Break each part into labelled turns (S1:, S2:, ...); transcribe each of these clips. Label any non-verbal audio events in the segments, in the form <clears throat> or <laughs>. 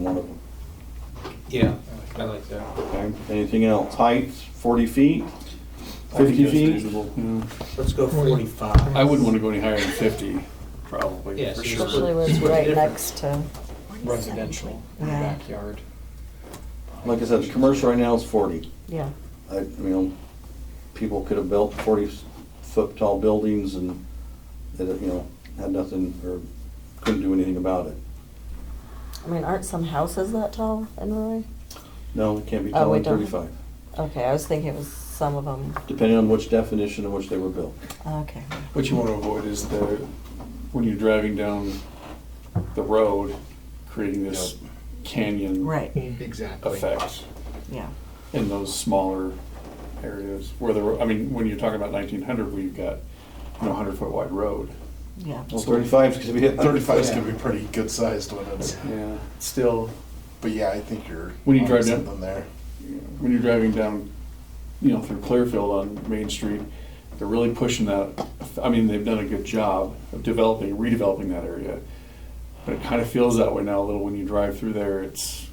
S1: one of them.
S2: Yeah, I like that.
S1: Okay, anything else? Heights, forty feet, fifty
S3: that's
S1: feet? Mm.
S3: reasonable.
S1: Yeah.
S4: Let's go forty-five.
S3: I wouldn't want to go any higher than fifty, probably,
S2: Yeah,
S3: for
S2: so
S3: sure.
S2: it's-
S5: Especially was
S2: it's
S5: right
S2: different.
S5: next to,
S6: residential in the
S5: Yeah.
S6: backyard.
S1: Like I said, the commercial right now is forty.
S5: yeah.
S1: I, you know, people could have built forty-foot tall buildings and, that, you know, had nothing, or couldn't do anything about it.
S5: I mean, aren't some houses that tall in Roy?
S1: No, it can't be
S5: Oh,
S1: taller
S5: we
S1: than
S5: don't.
S1: thirty-five,
S5: Okay, I was thinking it was some of them.
S1: depending on which definition in which they were built.
S5: Okay.
S3: What you want to avoid is the, when you're driving down the road, creating this canyon
S1: Hmm.
S5: Right,
S6: Exactly.
S3: effect
S5: yeah.
S3: in those smaller areas where the, ro- I mean, when you're talking about nineteen hundred, we've got, you know, hundred foot wide road.
S5: Yeah.
S1: Well, thirty-five's gonna be.
S7: Thirty-five is
S3: Yeah.
S7: gonna be pretty good sized when it's,
S3: Yeah, still,
S7: but yeah, I think you're.
S3: When you
S7: onto
S3: drive down-
S7: Something there.
S3: when you're driving down, you know, through Clearfield on Main Street, they're really pushing that. I mean, they've done a good job of developing, redeveloping that area. But it kind of feels that way now a little when you drive through there. It's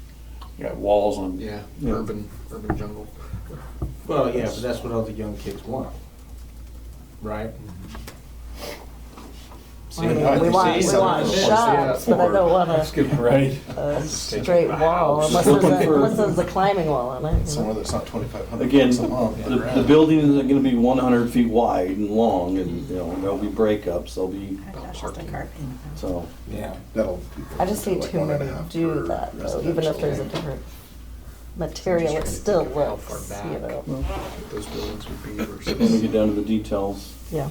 S3: you got walls on.
S6: Yeah,
S1: Yeah.
S6: urban, urban jungle.
S2: Well, yeah, but that's what all the young kids want, right? See,
S5: I mean,
S7: I
S5: We
S7: think
S5: want,
S7: so.
S5: we want
S7: Yeah.
S5: shops, but I don't want
S3: That's
S5: a,
S3: good, <laughs> right?
S5: a straight wall, unless
S1: Looking
S5: there's a,
S1: for-
S5: unless there's a climbing wall on it. you
S7: Somewhere
S5: know.
S7: that's not twenty-five <laughs> hundred
S1: Again,
S7: bucks a month.
S1: The, the building isn't gonna be one hundred feet wide and long, and, you know, there'll be breakups, there'll be, so.
S2: Yeah.
S7: That'll.
S5: I just need
S7: like
S5: too
S7: one and
S5: many
S7: a half
S5: do
S7: per
S5: that, though, even if
S7: residential.
S5: there's a different material, it still looks, you know,
S6: what Those buildings would be
S1: When we
S6: versus.
S1: get down to the details,
S5: yeah.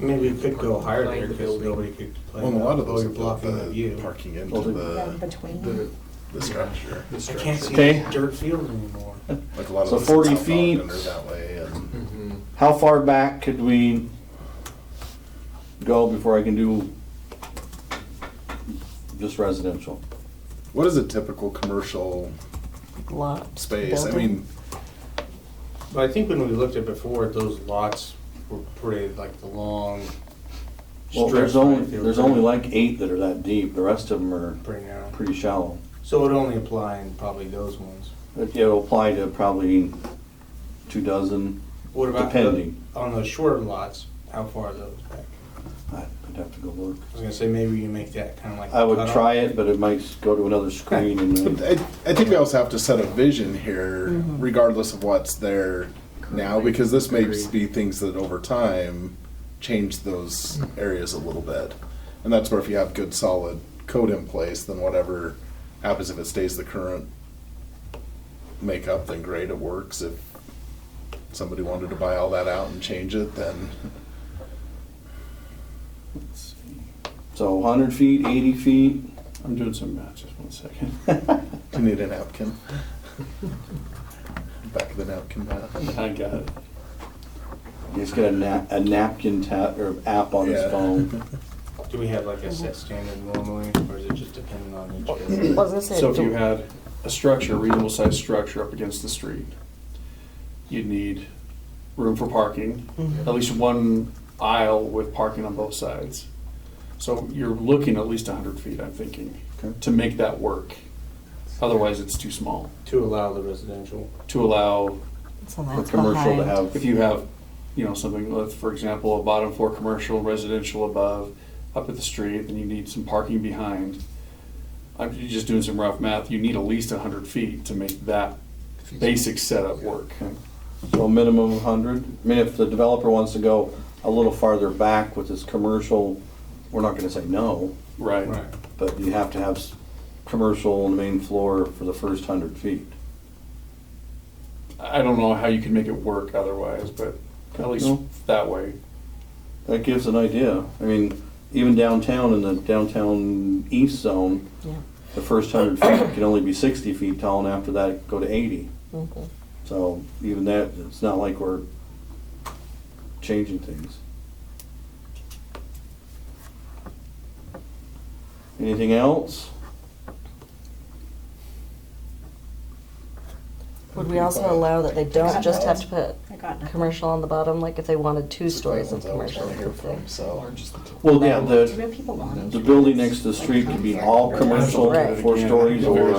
S2: Maybe it could go higher there because nobody could complain.
S7: Well, a lot of
S6: uh,
S2: about
S7: those are
S2: it blocking the
S7: the
S2: view.
S7: parking
S1: Well,
S7: into
S1: they-
S7: the,
S6: The-
S7: the structure.
S6: the
S2: I can't see
S6: structure.
S1: Okay.
S2: dirt fields anymore.
S7: Like a lot of
S1: So
S7: those
S1: 40
S7: South
S1: feet.
S7: Ogden are that way and
S6: Mhm.
S1: how far back could we go before I can do just residential?
S7: what is a typical commercial
S5: Lot.
S7: space? I
S5: building.
S7: mean,
S2: But I think when we looked at before, those lots were pretty like the long
S1: Well, there's
S2: strips, right?
S1: only,
S2: They were
S1: there's
S2: pretty-
S1: only like eight that are that deep, the rest of them are
S2: Pretty narrow.
S1: pretty shallow.
S2: So it only apply in probably those ones.
S1: But It'll apply to probably two dozen,
S2: What about the-
S1: depending.
S2: on those shorter lots? How far are those back?
S1: I'd I'd have to go look.
S2: I was gonna say maybe you make that kind of like.
S1: I would
S2: cutoff.
S1: try it, but it might go to another screen and then.
S7: <laughs> I, I think we also have to set a vision here regardless of what's there now, because this may
S6: Agreed.
S7: be things that over time change those areas a little bit. And that's where if you have good solid code in place, then whatever happens, if it stays the current makeup, then great, it works. If somebody wanted to buy all that out and change it, then <laughs>
S1: So hundred feet, eighty feet, <laughs>
S3: I'm doing some math. Just one second. <laughs>
S7: you need a
S1: <laughs>
S7: napkin. Back of the napkin, Matt.
S3: I got it.
S1: he's got a na- a napkin tap, or app on his
S7: Yeah.
S1: phone.
S2: Do we have like a set standard normally, or is it just dependent on each?
S5: <clears throat>
S2: area?
S5: Well, I was gonna say,
S3: So if
S5: do-
S3: you had a structure, reasonable sized structure up against the street, you'd need room for parking, at least one aisle with parking on both sides. So you're looking at least hundred feet, I'm thinking,
S1: Okay.
S3: to make that work. Otherwise, it's too small
S2: To allow the residential.
S3: to allow,
S5: so
S1: For
S5: that's
S1: commercial to
S5: behind.
S1: have.
S3: if you have, you know, something, let's, for example, a bottom floor commercial, residential above, up at the street, then you need some parking behind. I'm just doing some rough math, you need at least hundred feet to make that basic setup work.
S1: So a minimum of hundred. I mean, if the developer wants to go a little farther back with his commercial, we're not gonna say no,
S3: Right.
S1: but you have to have s- commercial on the main floor for the first hundred feet.
S3: I don't know how you can make it work otherwise, but at least
S1: No.
S3: that way.
S1: That gives an idea. I mean, even downtown in the downtown east zone,
S5: Yeah.
S1: the first hundred feet can only be sixty feet tall, and after that, go to eighty.
S5: Mhm.
S1: So even that, it's not like we're changing things. Anything else?
S5: Would we also allow that they don't
S7: Got
S5: just have
S7: it.
S5: to put
S8: I got nothing.
S5: commercial on the bottom, like if they wanted two stories of
S7: Ones I always
S5: commercial
S7: wanna
S5: or
S7: hear from,
S5: something?
S7: So.
S6: Largest-
S1: Well, yeah,
S8: Do
S1: the,
S8: real people want?
S1: the building next to the street could be all commercial,
S5: Right.
S1: four stories, or